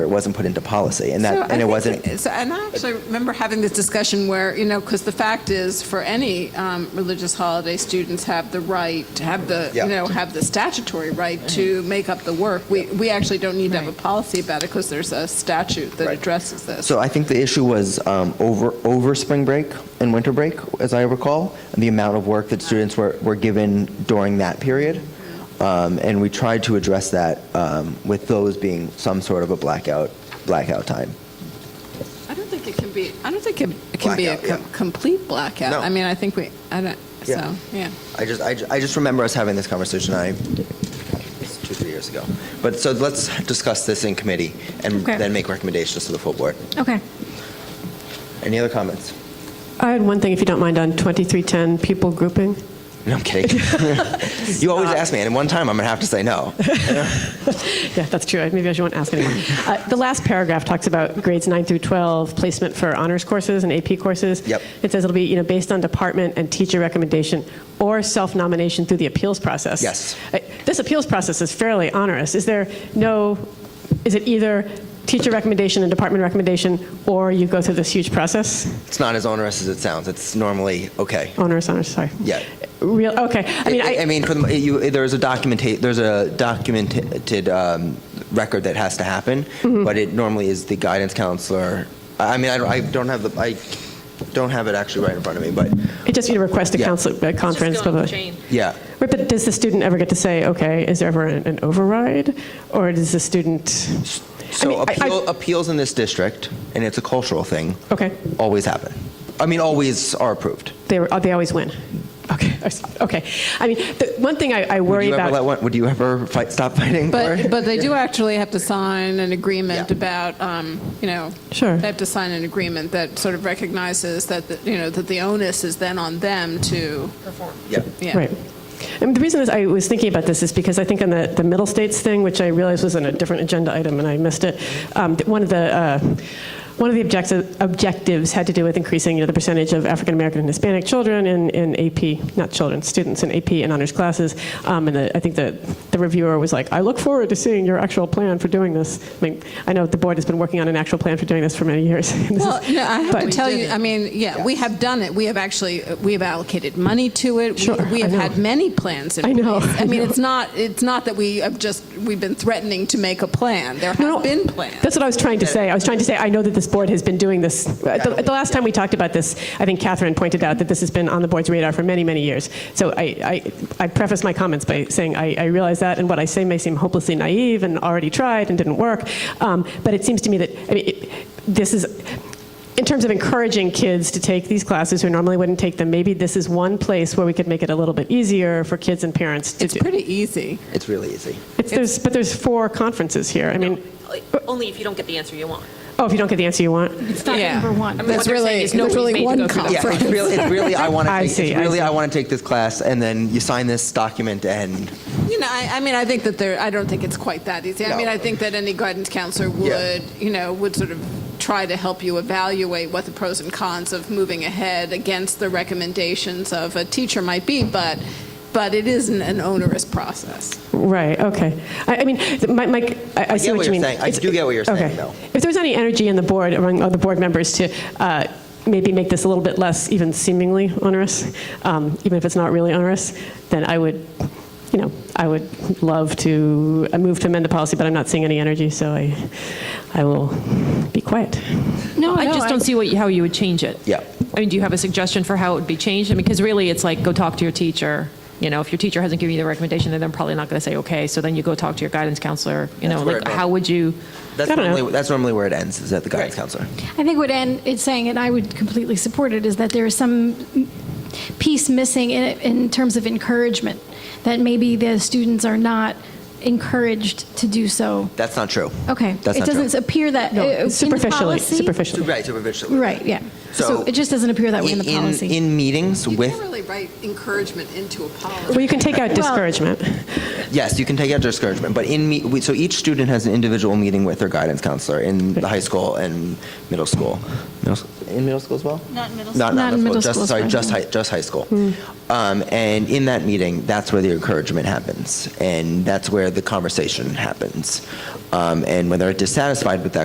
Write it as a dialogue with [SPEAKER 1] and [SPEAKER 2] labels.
[SPEAKER 1] wasn't put into policy, and
[SPEAKER 2] So
[SPEAKER 1] that,
[SPEAKER 2] I
[SPEAKER 1] and it
[SPEAKER 2] think-
[SPEAKER 1] wasn't.
[SPEAKER 2] so- And I actually remember having this discussion where, you know, because the fact is, for any um, religious holiday, students have the right, to have the,
[SPEAKER 1] Yeah.
[SPEAKER 2] you know, have the statutory right to make up the work. We, we actually don't need to have a policy about it because there's a statute that
[SPEAKER 1] Right.
[SPEAKER 2] addresses this.
[SPEAKER 1] So I think the issue was um, over, over spring break and winter break, as I recall, and the amount of work that students were, were given during that period. Um, And we tried to address that um, with those being some sort of a blackout, blackout time.
[SPEAKER 2] I don't think it can be, I don't think it it can be a
[SPEAKER 1] Blackout,
[SPEAKER 2] com-
[SPEAKER 1] yeah.
[SPEAKER 2] complete blackout.
[SPEAKER 1] No.
[SPEAKER 2] I mean, I think we, I don't,
[SPEAKER 1] Yeah.
[SPEAKER 2] so, yeah.
[SPEAKER 1] I just, I ju- I just remember us having this conversation, I, it's two, three years ago. But, so let's discuss this in committee and
[SPEAKER 3] Okay.
[SPEAKER 1] then make recommendations to the full board.
[SPEAKER 3] Okay.
[SPEAKER 1] Any other comments?
[SPEAKER 4] I had one thing, if you don't mind, on 2310, people grouping.
[SPEAKER 1] No, I'm kidding. You always ask me, and one time I'm going to have to say no.
[SPEAKER 4] Yeah, that's true. Maybe I shouldn't ask anymore. Uh, The last paragraph talks about grades 9 through 12, placement for honors courses and AP courses.
[SPEAKER 1] Yep.
[SPEAKER 4] It says it'll be, you know, based on department and teacher recommendation or self-nomination through the appeals process.
[SPEAKER 1] Yes.
[SPEAKER 4] Uh, This appeals process is fairly onerous. Is there no, is it either teacher recommendation and department recommendation, or you go through this huge process?
[SPEAKER 1] It's not as onerous as it sounds. It's normally okay.
[SPEAKER 4] Onerous, onerous, sorry.
[SPEAKER 1] Yeah.
[SPEAKER 4] Real, okay. I mean,
[SPEAKER 1] I, mean, for the, you, there's a documenta- there's a documented um, record that has to happen,
[SPEAKER 4] Mm-hmm.
[SPEAKER 1] but it normally is the guidance counselor. I I mean, I don't, I don't have the I don't have it actually right in front of me, but
[SPEAKER 4] It just, you know, request a
[SPEAKER 1] Yeah.
[SPEAKER 4] council, a conference.
[SPEAKER 5] Just go
[SPEAKER 4] blah,
[SPEAKER 5] on
[SPEAKER 4] blah.
[SPEAKER 5] the chain.
[SPEAKER 1] yeah,
[SPEAKER 4] Right, but does the student ever get to say, okay, is there ever an an override? Or does the student,
[SPEAKER 1] So
[SPEAKER 4] mean, I-
[SPEAKER 1] appeal,
[SPEAKER 4] I-
[SPEAKER 1] appeals in this district, and it's a cultural thing,
[SPEAKER 4] okay,
[SPEAKER 1] always happen. I mean, always are approved.
[SPEAKER 4] they, were- they always win? Okay, I s- okay. I mean, the one thing I I
[SPEAKER 1] Would
[SPEAKER 4] worry
[SPEAKER 1] you
[SPEAKER 4] about.
[SPEAKER 1] ever let one, Would you ever fight, stop fighting? for it?
[SPEAKER 2] But, but they do actually have to sign an agreement
[SPEAKER 1] Yeah.
[SPEAKER 2] about, um, you know,
[SPEAKER 4] Sure.
[SPEAKER 2] they have to sign an agreement that sort of recognizes that, the- you know, that the onus is then on them to,
[SPEAKER 1] yeah.
[SPEAKER 2] yeah.
[SPEAKER 4] Right. And the reason is I was thinking about this is because I think on the, the middle states thing, which I realized was on a different agenda item and I missed it, um, th- one of the, uh, one of the objectives, objectives had to do with increasing you know, the percentage of African American and Hispanic children in, in AP, not children, students in AP and honors classes. Um, and the, I think the, the reviewer was like, I look forward to seeing your actual plan for doing this. I mean, I know the board has been working on an actual plan for doing this for many years. This is-
[SPEAKER 2] Well, no, I have
[SPEAKER 4] but-
[SPEAKER 2] to tell you, I mean, yeah, we have done it. We have actually, we have allocated money to it. We-
[SPEAKER 4] Sure,
[SPEAKER 2] We have
[SPEAKER 4] I know.
[SPEAKER 2] had many plans in
[SPEAKER 4] I know,
[SPEAKER 2] place. I
[SPEAKER 4] I
[SPEAKER 2] mean,
[SPEAKER 4] know.
[SPEAKER 2] it's not, it's not that we have just, we've been threatening to make a plan. There
[SPEAKER 4] No,
[SPEAKER 2] have
[SPEAKER 4] no,
[SPEAKER 2] been plans.
[SPEAKER 4] That's what I was trying to say. I was trying to say, I know that this board has been doing this. At the, at the last time we talked about this, I think Catherine pointed out that this has been on the board's radar for many, many years. So I, I, I preface my comments by saying I, I realize that, and what I say may seem hopelessly naive and already tried and didn't work. Um, but it seems to me that I mean, it, this is in terms of encouraging kids to take these classes who normally wouldn't take them. Maybe this is one place where we could make it a little bit easier for kids and parents to
[SPEAKER 2] It's
[SPEAKER 4] do.
[SPEAKER 2] pretty easy.
[SPEAKER 1] It's really easy.
[SPEAKER 4] it's, there's, but there's four conferences here. I mean,
[SPEAKER 5] Only if you don't get the answer you want.
[SPEAKER 4] oh, if you don't get the answer you want.
[SPEAKER 3] It's not
[SPEAKER 2] Yeah.
[SPEAKER 3] number one.
[SPEAKER 5] I mean,
[SPEAKER 2] That's
[SPEAKER 5] what they're saying
[SPEAKER 2] really-
[SPEAKER 5] is no
[SPEAKER 2] that's
[SPEAKER 5] one's
[SPEAKER 2] really
[SPEAKER 5] made to
[SPEAKER 2] one
[SPEAKER 5] go through that.
[SPEAKER 1] Yeah, it's really, it's really I want to.
[SPEAKER 4] I
[SPEAKER 1] take,
[SPEAKER 4] see,
[SPEAKER 1] It's
[SPEAKER 4] I
[SPEAKER 1] really
[SPEAKER 4] see.
[SPEAKER 1] I want to take this class, and then you sign this document, and
[SPEAKER 2] You know, I, I mean, I think that there, I don't think it's quite that easy. I
[SPEAKER 1] No.
[SPEAKER 2] mean, I think that any guidance counselor
[SPEAKER 1] Yeah.
[SPEAKER 2] would, you know, would sort of try to help you evaluate what the pros and cons of moving ahead against the recommendations of a teacher might be, but, but it isn't an onerous process.
[SPEAKER 4] Right, okay. I, I mean, th- my, my, I, I, see
[SPEAKER 1] get
[SPEAKER 4] what,
[SPEAKER 1] what you're
[SPEAKER 4] you mean.
[SPEAKER 1] saying. I do get what you're saying,
[SPEAKER 4] okay.
[SPEAKER 1] though.
[SPEAKER 4] If there's any energy in the board, among other board members, to uh, maybe make this a little bit less even seemingly onerous, um, even if it's not really onerous, then I would, you know, I would love to I move to amend the policy, but I'm not seeing any energy, so I, I will be quiet.
[SPEAKER 5] No, I just don't see what, how you would change it.
[SPEAKER 1] Yeah.
[SPEAKER 5] I mean, do you have a suggestion for how it would be changed? I mean, because really, it's like, go talk to your teacher. You know, if your teacher hasn't given you the recommendation, then they're probably not going to say, okay, so then you go talk to your guidance counselor. You know,
[SPEAKER 1] That's where
[SPEAKER 5] like,
[SPEAKER 1] it-
[SPEAKER 5] how would you?
[SPEAKER 1] that's
[SPEAKER 4] I don't know.
[SPEAKER 1] normally that's normally where it ends is at the guidance counselor.
[SPEAKER 3] I think what Ann is saying, and I would completely support it, is that there is some piece missing in, it in terms of encouragement, that maybe the students are not encouraged to do so.
[SPEAKER 1] That's not true.
[SPEAKER 3] Okay.
[SPEAKER 1] That's
[SPEAKER 3] It
[SPEAKER 1] not
[SPEAKER 3] doesn't
[SPEAKER 1] true.
[SPEAKER 3] appear that. uh, in the
[SPEAKER 4] Superficially,
[SPEAKER 3] policy-
[SPEAKER 4] superficially.
[SPEAKER 1] Right, superficially.
[SPEAKER 3] Right, yeah. So it just doesn't appear that way in the policy.
[SPEAKER 1] In meetings
[SPEAKER 2] You
[SPEAKER 1] with
[SPEAKER 2] can't really write encouragement into a policy.
[SPEAKER 4] Well, you can take out discouragement.
[SPEAKER 1] Yes, you can take out discouragement, but in me, we, so each student has an individual meeting with their guidance counselor in the high school and middle school. Middle, s- in middle school as well? Not middle school. Not,
[SPEAKER 3] Not in middle
[SPEAKER 1] just,
[SPEAKER 3] school,
[SPEAKER 1] Sorry,
[SPEAKER 3] sorry. Hmm.
[SPEAKER 1] just high, just high school. Um, and in that meeting, that's where the encouragement happens, and that's where the conversation happens. Um, and when they're dissatisfied with that